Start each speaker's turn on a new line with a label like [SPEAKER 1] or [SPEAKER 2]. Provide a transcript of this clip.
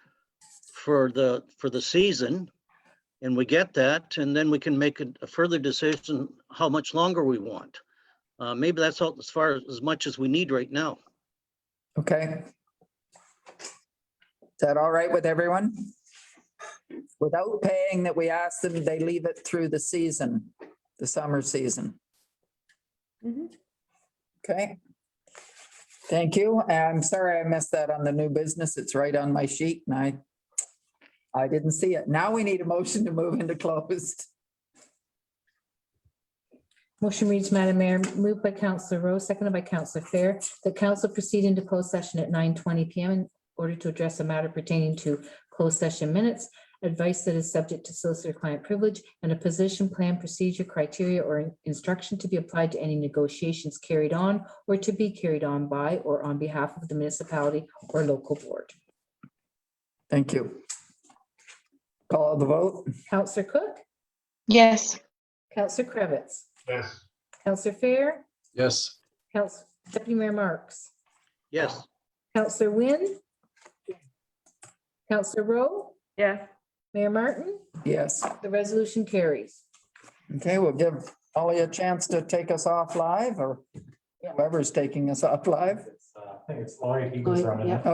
[SPEAKER 1] for the, for the season. And we get that, and then we can make a a further decision how much longer we want. Uh, maybe that's all, as far as, as much as we need right now.
[SPEAKER 2] Okay. Is that all right with everyone? Without paying that we ask them, they leave it through the season, the summer season. Okay. Thank you. I'm sorry I missed that on the new business. It's right on my sheet and I I didn't see it. Now we need a motion to move into closed.
[SPEAKER 3] Motion reads, Madam Mayor, moved by Counselor Rowe, seconded by Counselor Fair, the council proceed into closed session at nine twenty PM in order to address a matter pertaining to closed session minutes, advice that is subject to solicitor-client privilege, and a position, plan, procedure, criteria, or instruction to be applied to any negotiations carried on or to be carried on by or on behalf of the municipality or local board.
[SPEAKER 2] Thank you. Call the vote.
[SPEAKER 3] Counselor Cook,
[SPEAKER 4] Yes.
[SPEAKER 3] Counselor Cravitz,
[SPEAKER 5] Yes.
[SPEAKER 3] Counselor Fair,
[SPEAKER 6] Yes.
[SPEAKER 3] Counsel, Deputy Mayor Marks.
[SPEAKER 1] Yes,
[SPEAKER 3] Counselor Wynn? Counselor Rowe?
[SPEAKER 4] Yes.
[SPEAKER 3] Mayor Martin?
[SPEAKER 2] Yes.
[SPEAKER 3] The resolution carries.
[SPEAKER 2] Okay, we'll give Ollie a chance to take us off live or whoever's taking us off live.
[SPEAKER 5] I think it's Lloyd, he was running it.